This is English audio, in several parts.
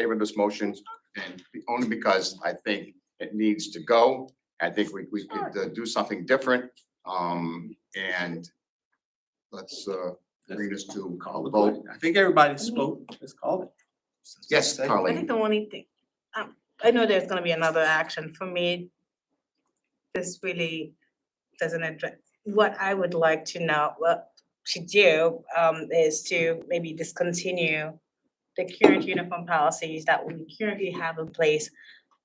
favor of this motion, and only because I think it needs to go. I think we, we could uh, do something different, um, and let's, uh, bring this to Call a the vote. vote. I think everybody spoke, let's call it. Yes, I think Carleen, the only thing, um, I know there's gonna be another action for me. This really doesn't address, what I would like to know, what to do, um, is to maybe discontinue the current uniform policies that we currently have in place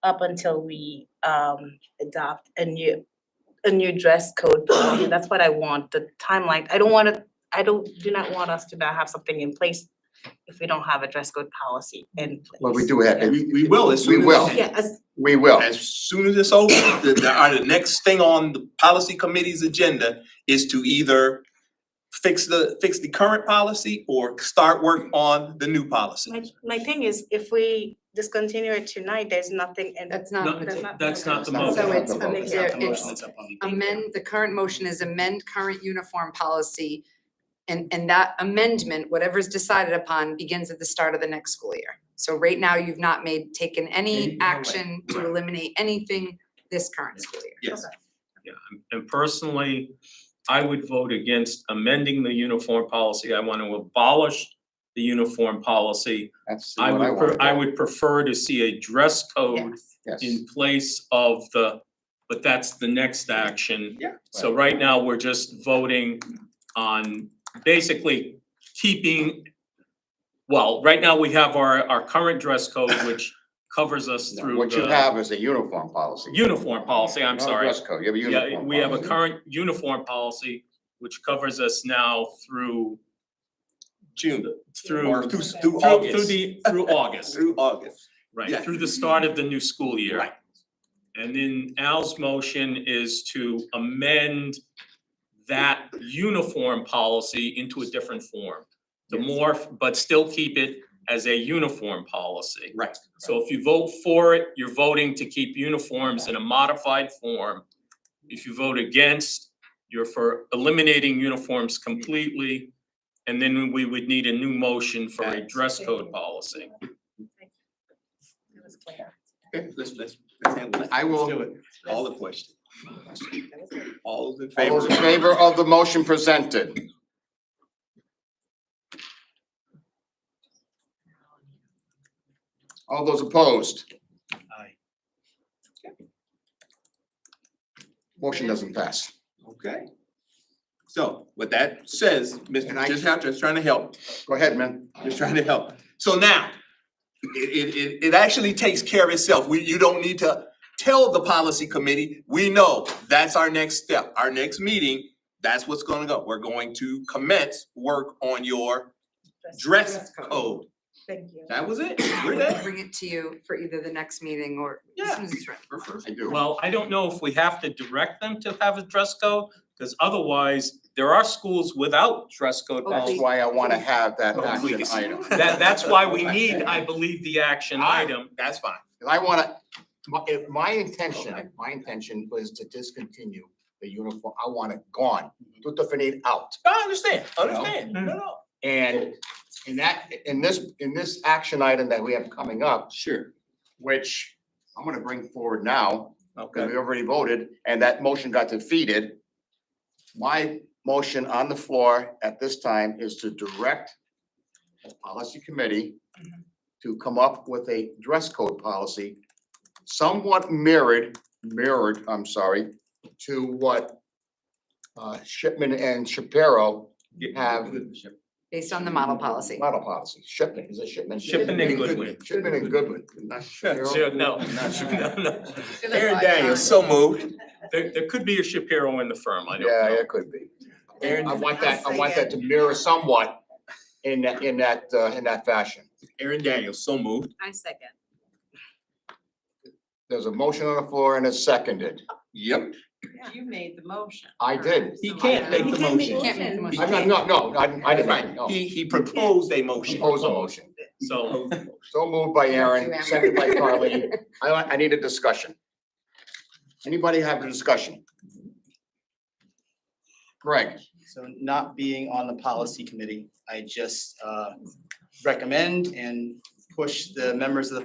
up until we, um, adopt a new, a new dress code. policy. That's what I want, the timeline. I don't wanna, I don't, do not want us to not have something in place if we don't have a dress code policy in place. well, we do have, Yeah. We, we will, as We soon as. will. Yeah, as, we will. As soon as it's over, the, the, our, the next thing on the policy committee's agenda is to either fix the, fix the current policy or start work on the new policy. my, my thing is, if we discontinue it tonight, there's nothing in That's No, not, that's not- that's not the that's so motion. it's, Not the vote, amend- it's not there- the it's amend, the current motion is amend current uniform policy. And, and that amendment, whatever is decided upon, begins at the start of the next school year. So right now, you've not made, taken Any- any no way. action to Right. eliminate anything this current school year. Yes, And personally, I would vote against amending the uniform policy. I want to abolish the uniform policy. That's I what I would, pre- want. I would prefer to see a dress code Yes. Yes, in place of the, but that's the next action. Yeah. So right now, we're just voting on basically keeping, well, right now, we have our, our current dress code, which covers us No, through what you the- have is a uniform policy. Uniform policy, I'm Not a sorry. dress code, you have a uh, uniform Yeah, we have a policy. current uniform policy which covers us now through June, through or through through, through through August, the through August, through August. Yeah. right, through the start of the new school year. Right. And then Al's motion is to amend that uniform policy into a different form. To Yes. morph, but still keep it as a uniform policy. Right. So if you vote for it, you're voting to keep uniforms in a modified form. If you vote against, you're for eliminating uniforms completely. And then we would need a new motion for a dress code policy. It was clear. Okay, let's, let's, let's handle it. I will- Let's do it. All the questions, That was clear. all those in All favor? those in favor of the motion presented? All those opposed? Aye. Motion doesn't pass. Okay. So what that says, And Mr. I- Just have to, just trying to help. Go ahead, man. Just trying to help. So now, it, it, it, it actually takes care of itself. We, you don't need to tell the policy committee, we know that's our next step, our next meeting. That's what's gonna go. We're going to commence work on your dress Dress code. code. Thank you. That was it. We're there. Bring it to you for either the next meeting or as Yeah. soon as it's ready. We're first. I do. Well, I don't know if we have to direct them to have a dress code, because otherwise, there are schools without dress code Okay. That's policy. why I want to have that Oh, action please. item. That, that's why we need, I believe, the action item. That's fine. And I want to, my, if my intention, my intention was to discontinue the uniform. I want it gone. Put the finish out. I understand, understand. No, no. And in that, in this, in this action item that we have coming up, Sure. which I'm gonna bring forward now, because Okay. we already voted, and that motion got defeated. My motion on the floor at this time is to direct the policy committee to come up with a dress code policy somewhat mirrored, mirrored, I'm sorry, to what uh, Shipman and Shapiro have based on the model policy. Model policy, shipment, is it shipment? Shipment and Goodwin. Shipment and Goodwin, not Shapiro. Sure, no, no, no. Aaron Daniels, so moved. There, there could be a Shapiro in the firm, I don't Yeah, know. it could be. Aaron, I want that, I want that to mirror somewhat in that, in that, uh, in that fashion. Aaron Daniels, so moved. I second. There's a motion on the floor and it's seconded. Yep. You made the motion. I did. He can't make the You motion. can't make the He I'm motion. not, no, no, I didn't, I didn't, no. Right, he, he proposed a motion. Oppose the motion. So, So moved by Aaron, Thank you, Aaron. seconded by Carly. I, want- I need a discussion. Anybody have a discussion? Greg, So not being on the policy committee, I just uh, recommend and push the members of the